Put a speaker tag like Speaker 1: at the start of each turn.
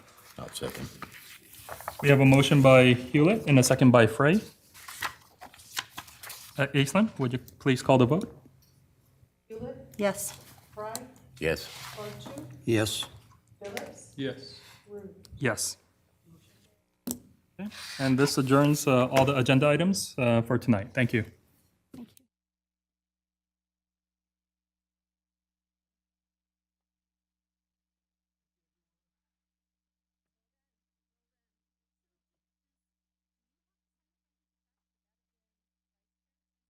Speaker 1: I'll second.
Speaker 2: We have a motion by Hewlett and a second by Frey. Uh, Aislinn, would you please call the vote?
Speaker 3: Hewlett,
Speaker 4: Yes.
Speaker 3: Fry,
Speaker 1: Yes.
Speaker 3: Archer,
Speaker 1: Yes.
Speaker 3: Phillips,
Speaker 2: Yes. Yes. Okay, And this adjourns uh, all the agenda items uh, for tonight. Thank you.